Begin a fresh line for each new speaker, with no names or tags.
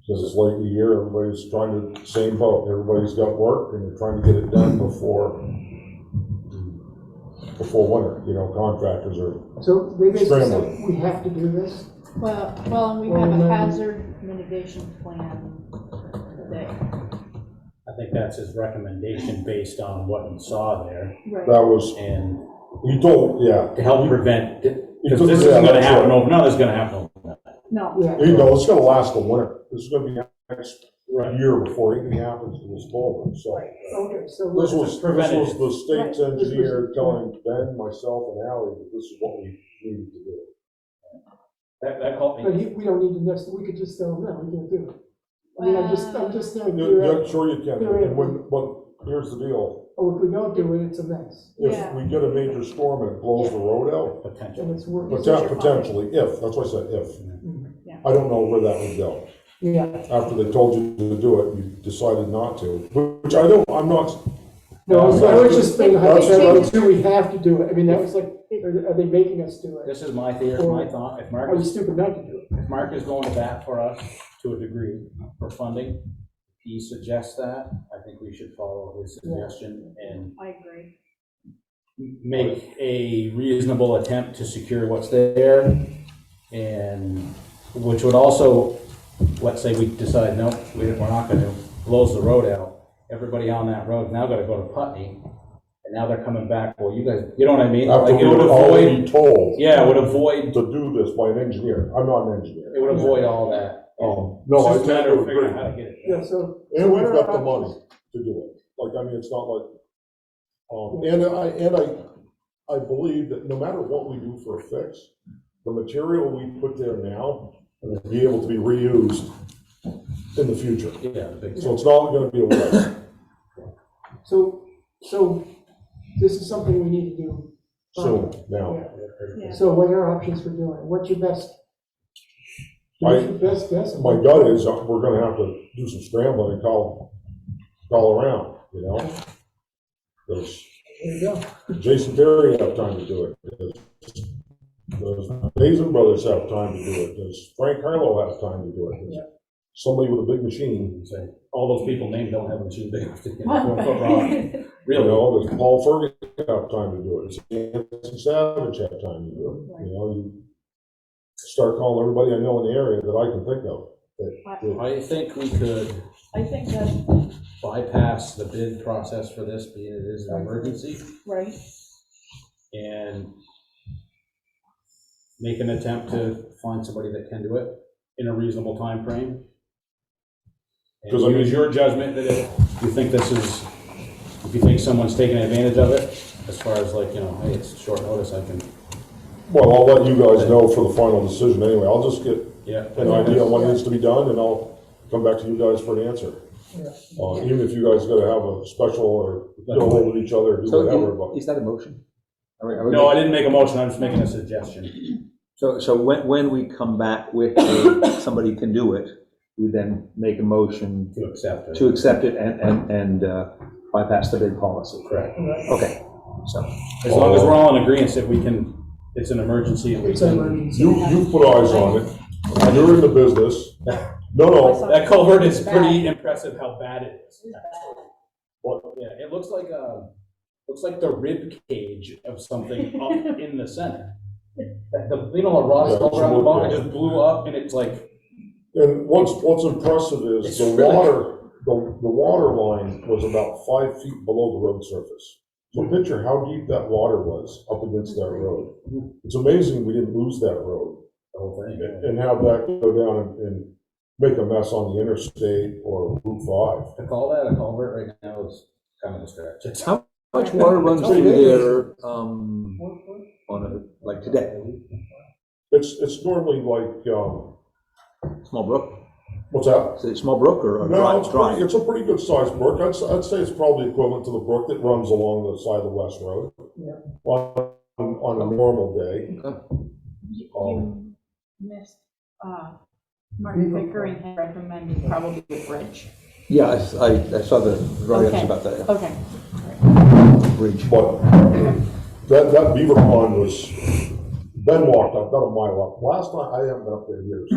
Because it's late in the year, everybody's trying to, same boat, everybody's got work and they're trying to get it done before, before winter, you know, contractors are,
So they basically said,
Scramble.
we have to do this?
Well, well, and we
Well,
have
then-
a hazard mitigation plan today.
I think that's his recommendation based on what he saw there
Right.
that was,
and
you told, yeah.
to help prevent,
You
because
took-
this
yeah,
isn't gonna
that's
happen
right.
over, none of this is gonna happen overnight.
No,
Yeah.
You know, it's gonna last the winter, this is gonna be next
Right.
year before anything happens to this boat, so.
Okay, so
This was,
let's,
this was
preventative.
the state's
Right.
engineer telling Ben, myself, and Ally that this is what we needed to do.
That, that helped
but
me.
he- we don't need to next, we could just tell them, no, we can't do it. I mean, I'm just, I'm just saying,
You're,
you're,
you're- sure you can, and when, but here's the deal,
oh, if we don't do it, it's a mess,
if
Yeah.
we get a major storm and it blows the road out,
Potential.
and it's working.
Potential.
poten- potentially, if, that's why I said if.
Yeah.
I don't know where that would go,
Yeah,
after they told you to do it, you decided not to, which I don't, I'm not,
no, I was- I was just saying,
That's-
hypothetically, too, we have to do it, I mean, that was like, are are they making us do it?
This is my theory, my thought, if
Are
Mark
we
is,
stupid not to do it?
if Mark is going to bat for us to a degree for funding, he suggests that, I think we should follow his suggestion and
I agree.
make a reasonable attempt to secure what's there, and, which would also, let's say we decide, no, we- we're not gonna, blows the road out, everybody on that road now gotta go to Putney, and now they're coming back, well, you guys, you know what I mean?
after
Like,
we
it would
were already
avoid,
told
yeah, it would avoid,
to do this by an engineer, I'm not an engineer.
it would avoid all that.
Um, no, I
It's just a matter of
totally
figuring
agree.
out how to get it.
Yeah, so.
And we've got the
so what are our
money to do it. Like, I mean, it's not like, um, and I, and I, I believe that no matter what we do for a fix, the material we put there now will be able to be reused in the future.
Yeah, the big-
So it's not gonna be a waste.
options? So, so this is something we need to do.
So now,
Yeah.
Yeah.
So what are our options for doing it? What's your best? What's
I-
your best guess?
my gut is uh, we're gonna have to do some scrambling and call, call around, you know? 'Cause
There you go.
Jason Terry have time to do it? Does- Does Mason Brothers have time to do it? Does Frank Harlow have time to do it? Does Somebody with a big machine,
and say, All those people named don't have a machine big enough to get a four-foot rod,
you
really.
know, does Paul Ferguson have time to do it? Does Anson Savage have time to do it? You know, you start calling everybody I know in the area that I can think of. that-
I think we could
I think that's
bypass the bid process for this, being it is an emergency,
right.
and make an attempt to find somebody that can do it in a reasonable time frame. And
'Cause I mean-
use your judgment that if you think this is, if you think someone's taking advantage of it, as far as like, you know, hey, it's short notice, I can,
Well, I'll let you guys know for the final decision anyway. I'll just get
yeah.
an idea on what needs to be done, and I'll come back to you guys for an answer. Uh, even if you guys gotta have a special or get hold of each other, do whatever,
So
but
is- is that a motion? Are we- are we-
No, I didn't make a motion, I'm just making a suggestion.
So, so when, when we come back with a- somebody can do it, we then make a motion
To accept it.
to accept it and, and, and uh, bypass the bid policy.
Correct.
Okay, so,
As long as we're all in agreement that we can, it's an emergency, and we
It's an
can
emergency.
you, you put eyes on it, you're in the business. No, no,
That culvert is pretty impressive how bad it is. Well, yeah, it looks like a, looks like the rib cage of something up in the center. That The, you know, a rod is
Yeah,
all around the
it's
bottom, it
wood,
just blew up and it's like,
and what's, what's impressive is
It's
the
really-
water, the, the water line was about five feet below the road surface.
Hmm.
So picture how deep that water was up against that road.
Hmm.
It's amazing we didn't lose that road.
the whole
and
thing.
and have that go down and- and make a mess on the interstate or Route
To call that a culvert right now is kind of a stretch. It's-
How much water runs through there, um, on a, like today,
five. It's, it's normally like, um,
small brook,
what's that?
is it a small brook or a
No,
dry,
it's
dry?
pretty, it's a pretty good sized brook. I'd, s- I'd say it's probably equivalent to the brook that runs along the side of the West Road.
Yeah.
On, on a normal day.
You
Um,
you missed, uh, Martin Pickering had recommended probably a bridge.
Yeah, I, s- I- I saw the drawings
Okay.
about that, yeah,
Okay.
bridge.
But that, that beaver pond was, Ben walked up, not a mile up. Last night, I haven't been up there in years.